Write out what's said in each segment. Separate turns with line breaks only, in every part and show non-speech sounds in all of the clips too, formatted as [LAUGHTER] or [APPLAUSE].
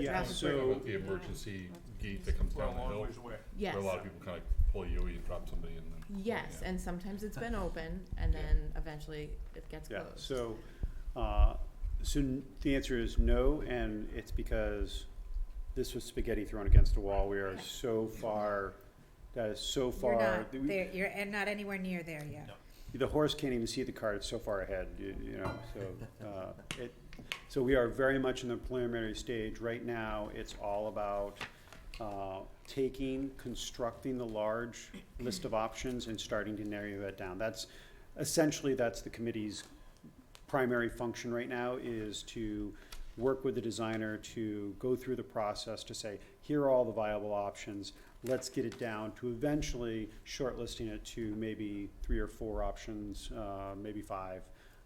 the
Yeah,
traffic
so-
burden.
With the emergency gate that comes
We're a
down the
long
hill,
ways away.
Yes,
where a lot of people kind of pull you, you drop somebody and then.
yes,
yeah.
and sometimes it's been open and
Yeah.
then eventually it gets
Yeah,
closed.
so, uh, so n- the answer is no, and it's because this was spaghetti thrown against the wall. We are so far, that is so
You're
far.
not
that we-
there, you're and not anywhere near there yet.
No.
The horse can't even see the car, it's so far ahead, you, you know, so, uh, it, so we are very much in the preliminary stage. Right now, it's all about, uh, taking, constructing the large list of options and starting to narrow that down. That's, essentially, that's the committee's primary function right now, is to work with the designer to go through the process to say, here are all the viable options, let's get it down to eventually shortlisting it to maybe three or four options, uh, maybe five,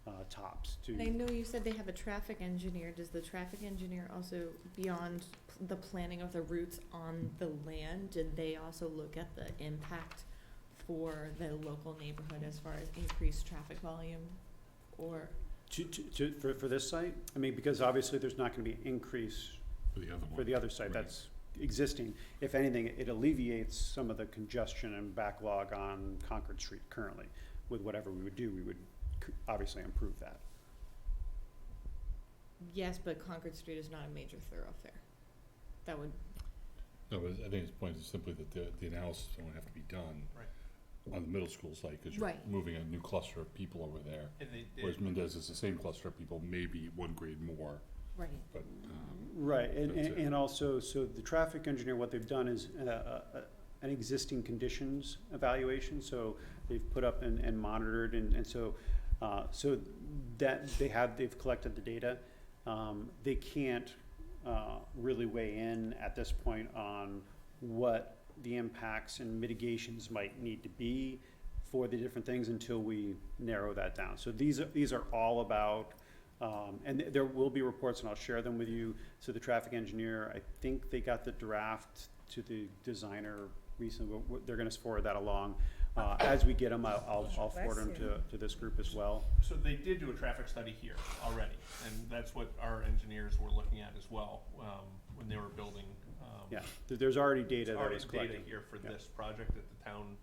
uh, tops to.
And I know you said they have a traffic engineer. Does the traffic engineer also, beyond p- the planning of the routes on the land, did they also look at the impact for the local neighborhood as far as increased traffic volume? Or,
To, to, to, for, for this site? I mean, because obviously there's not gonna be increase
For the other one.
for the other site
Right.
that's existing. If anything, it alleviates some of the congestion and backlog on Concord Street currently. With whatever we would do, we would c- obviously improve that.
yes, but Concord Street is not a major thoroughfare. That would,
No, but I think his point is simply that the, the analysis is gonna have to be done.
Right.
On the middle school site, cause you're
Right.
moving a new cluster of people over there,
And they, they,
whereas Mendez is the same cluster of people, maybe one grade more,
right,
but,
Mm-hmm.
um,
Right, and,
That's
and
it.
and also, so the traffic engineer, what they've done is, uh, uh, an existing conditions evaluation, so they've put up and, and monitored, and, and so, uh, so that, they have, they've collected the data. Um, they can't, uh, really weigh in at this point on what the impacts and mitigations might need to be for the different things until we narrow that down. So these are, these are all about, um, and th- there will be reports, and I'll share them with you. So the traffic engineer, I think they got the draft to the designer recently, but w- they're gonna forward that along. Uh, as we get them, I'll, I'll- I'll forward them
Bless you.
to, to this group as well.
so they did do a traffic study here already, and that's what our engineers were looking at as well, um, when they were building, um.
Yeah, th- there's already
there's
data that
already
was
data
collected.
here for
Yeah.
this project that the town,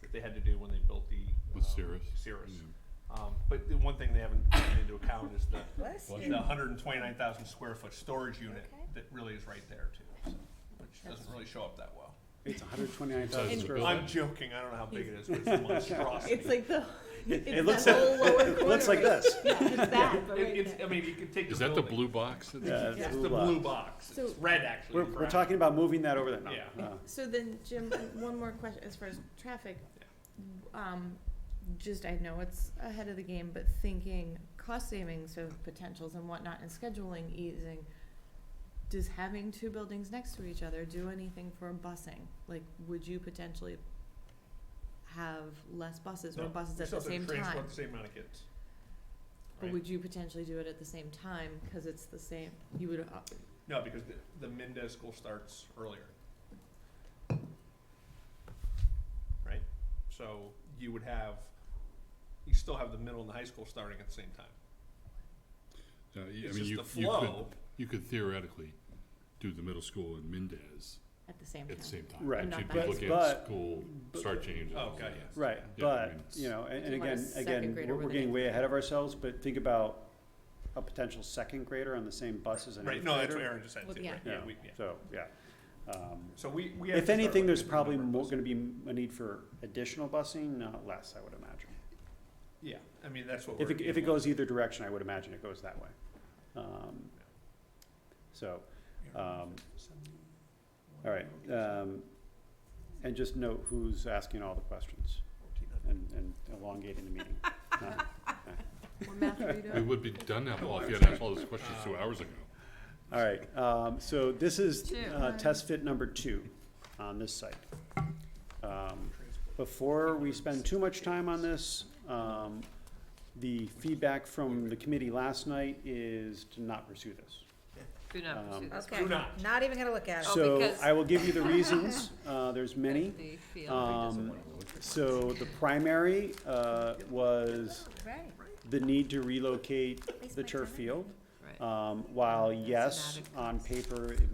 that they had to do when they built the.
with
um,
Cirrus.
Cirrus.
yeah.
Um, but the one thing they haven't taken into account is the,
Bless
Bless
the
you.
hundred and twenty-nine thousand square foot storage unit
Okay.
that really is right there too, so, which doesn't really show up that well.
It's hundred twenty-nine thousand
And-
square
Really?
I'm joking, I don't know how big it is, but it's a monstrosity.
[LAUGHS] it's like the,
It- it
it's
looks
that whole
like- [LAUGHS]
lower
It looks like
corner.
[LAUGHS]
this.
Yeah,
[LAUGHS]
it's that, but
It,
right
it's,
there.
I mean, you could take the
Is that the
building.
blue box? that they
Yeah,
keep-
it's
It's
blue
the
box.
blue box, it's
So-
red actually.
We're,
in
we're
brown.
talking about moving that over there. No,
Yeah.
no.
So then, Jim, one more question as far as traffic. Um, just, I know it's ahead of the game, but thinking cost savings of potentials and whatnot and scheduling easing, does having two buildings next to each other do anything for busing? Like, would you potentially have less buses or
No,
buses
We
at the
still have
same
to transport
time?
the same amount of kids.
But
Right.
would you potentially do it at the same time, cause it's the same, you would, uh,
No, because the, the Mendez school starts earlier. Right? So you would have, you still have the middle and the high school starting at the same time.
Uh, y- I
It's
mean,
just
you,
the
you could,
flow.
you could theoretically do the middle school in Mendez
at the same time?
at the same time.
Right.
But you'd be
But-
looking
but-
at school
but-
start changes.
Oh, got
yeah.
Right,
Yeah, I
but,
mean, it's-
you know, and, and
It's like a
again,
second
again,
grader
we're,
with
we're
an
getting
eighth
way
grader.
ahead of ourselves, but think about a potential second grader on the same bus as an eighth
Right,
grader.
no, that's what Aaron just said
Well,
too,
yeah.
right, yeah, we, yeah.
So, yeah. Um,
So we, we have to
If
start
anything,
looking
there's
at the
probably
number of
more,
buses.
gonna be m- a need for additional busing, not less, I would imagine.
Yeah, I mean, that's what we're.
If it, if it
dealing
goes either direction, I would imagine it goes that way. Um, So,
with.
um, all right, um, and just note who's asking all the questions and, and elongating the
[LAUGHS]
meeting. Uh,
Or math readout?
We would be done now, Paul, if you had asked all those questions two hours ago.
All right, um, so this is,
Two.
uh, test fit number two on this site. Um, Before we spend too much time on this, um, the feedback from the committee last night is to not pursue this.
Do not pursue
Um,
this.
Okay,
Do not.
not even gonna look at it.
Oh,
So
because-
I will give you the
[LAUGHS]
reasons, uh, there's many.
They feel-
Um, so the primary, uh, was
Right.
the need to relocate the turf field.
Right.
Um, while yes,
Systematic
on paper, it